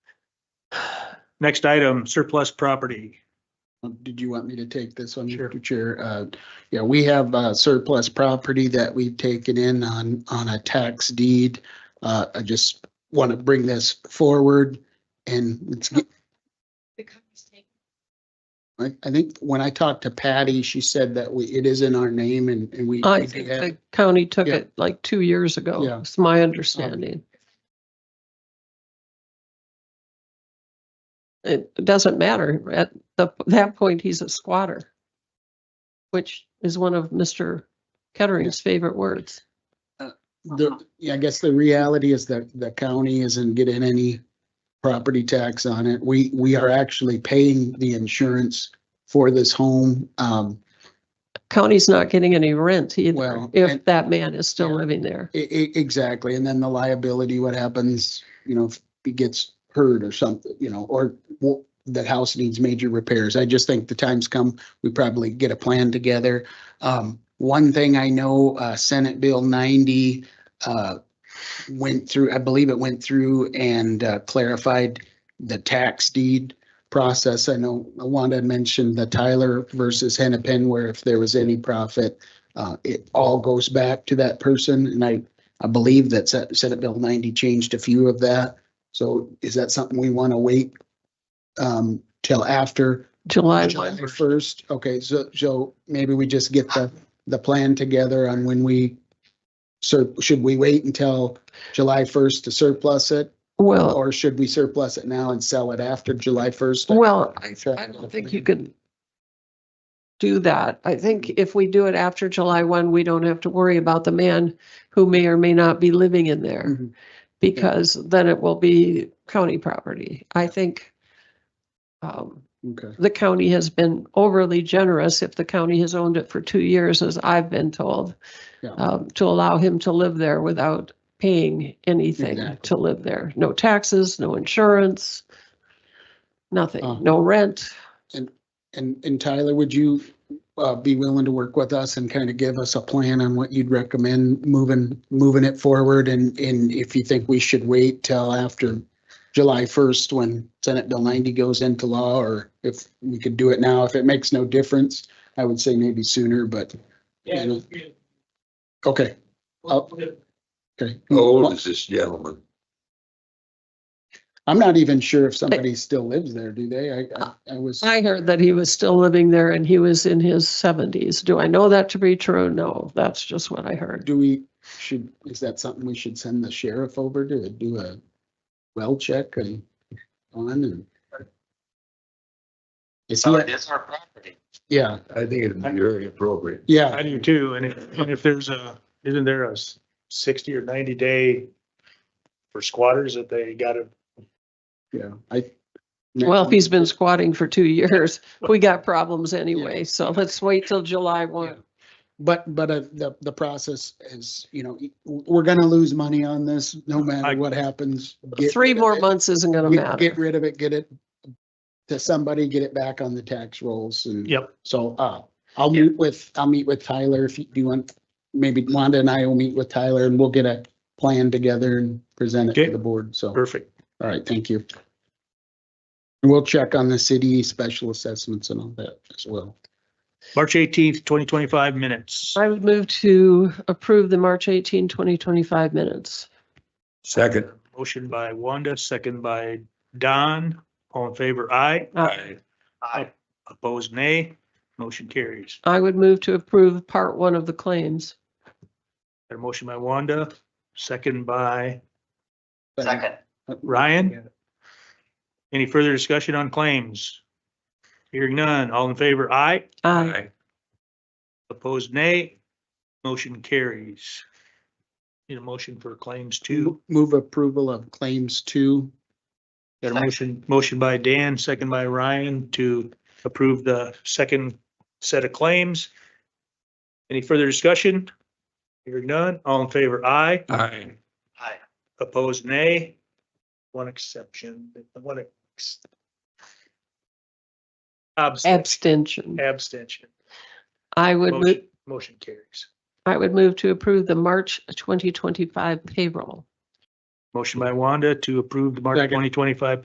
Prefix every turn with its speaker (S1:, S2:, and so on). S1: Next item, surplus property.
S2: Um, Did you want me to take this one,
S1: Sure.
S2: Mr. Chair? Uh, Yeah, we have uh, surplus property that we've taken in on, on a tax deed. Uh, I just want to bring this forward and it's, get-
S3: The copies taken.
S2: I, I think when I talked to Patty, she said that we, it is in our name and, and we.
S4: I
S2: we
S4: think
S2: have-
S4: Oh, the county took
S2: Yeah.
S4: it like two years ago.
S2: Yeah.
S4: It's my understanding. It doesn't matter. At the, that point, he's a squatter. Which is one of Mr. Kettering's favorite words.
S2: The, yeah, I guess the reality is that the county isn't getting any property tax on it. We, we are actually paying the insurance for this home. Um,
S4: County's not getting any rent either,
S2: Well,
S4: if
S2: and-
S4: that man is still
S2: Yeah.
S4: living there.
S2: I- I- E, exactly, and then the liability, what happens, you know, if he gets hurt or something, you know, or w- that house needs major repairs. I just think the time's come, we probably get a plan together. Um, one thing I know, uh, Senate Bill ninety, uh, went through, I believe it went through and uh, clarified the tax deed process. I know Wanda had mentioned the Tyler versus Hennepin, where if there was any profit, uh, it all goes back to that person. And I, I believe that Se- Senate Bill ninety changed a few of that. So is that something we want to wait um, till after
S4: July
S2: July
S4: one.
S2: first? Okay, so, so maybe we just get the, the plan together on when we sur should we wait until July first to surplus it?
S4: Well,
S2: Or should we surplus it now and sell it after July first?
S4: well, I I don't think you could do that. I think if we do it after July 1, we don't have to worry about the man who may or may not be living in there
S2: Mhm.
S4: because then it will be county property. I think um,
S2: Okay,
S4: the county has been overly generous if the county has owned it for two years, as I've been told,
S2: Yeah.
S4: um, to allow him to live there without paying anything
S2: Exactly.
S4: to live there. No taxes, no insurance,
S2: Uh.
S4: nothing, no rent.
S2: and, and Tyler, would you uh, be willing to work with us and kind of give us a plan on what you'd recommend moving, moving it forward? And, and if you think we should wait till after July first, when Senate Bill ninety goes into law, or if we could do it now, if it makes no difference, I would say maybe sooner, but. Yeah. Okay. I'll- Okay.
S5: How old is this gentleman?
S2: I'm not even sure if somebody still lives there, do they? I, I- I was,
S4: I heard that he was still living there and he was in his seventies. Do I know that to be true? No, that's just what I heard.
S2: do we, should, is that something we should send the sheriff over to do a well check and on and? Is he,
S6: So it is Oh, our property.
S2: yeah,
S5: I think it'd be very appropriate.
S2: yeah,
S1: I do too. And if, and if there's a, isn't there a s- sixty or ninety day for squatters that they gotta,
S2: yeah, I.
S4: Well, if he's been squatting for two years, we got problems anyway, so let's wait till July one.
S2: But, but uh, the, the process is, you know, we're gonna lose money on this, no
S1: I-
S2: matter what happens. Get
S4: Three
S2: rid of
S4: more
S2: it.
S4: months isn't gonna
S2: Get- Get
S4: matter.
S2: rid of it, get it to somebody, get it back on the tax rolls and.
S1: yep,
S2: So, uh, I'll meet with, I'll meet with Tyler if you do you want, maybe Wanda and I will meet with Tyler and we'll get a plan together and present it
S1: Okay.
S2: to the board. So, all
S1: perfect.
S2: right, thank you. And We'll check on the city special assessments and all that as well.
S1: March eighteenth, twenty twenty-five minutes.
S4: I would move to approve the March 18, 2025 minutes.
S5: Second.
S1: Motion by Wanda, second by Don. All in favor, aye.
S5: I
S1: Aye. Opposed, nay. Motion carries.
S4: I would move to approve part one of the claims.
S1: Got a motion by Wanda, second by
S2: But-
S6: Second,
S1: Ryan. Any further discussion on claims? Hearing none. All in favor, aye.
S4: Aye.
S1: Opposed, nay. Motion carries. Need a motion for claims two.
S2: Mo- Move approval of claims two.
S1: Got a motion, motion by Dan, second by Ryan to approve the second set of claims. Any further discussion? Hearing none. All in favor, aye.
S5: Aye.
S6: aye.
S1: Opposed, nay. One exception, one ex- abstention.
S4: Abstention.
S1: Abstention.
S4: I would, move.
S1: Motion- Motion carries.
S4: I would move to approve the March twenty twenty-five payroll.
S1: Motion by Wanda to approve the March
S2: Second.
S1: twenty twenty-five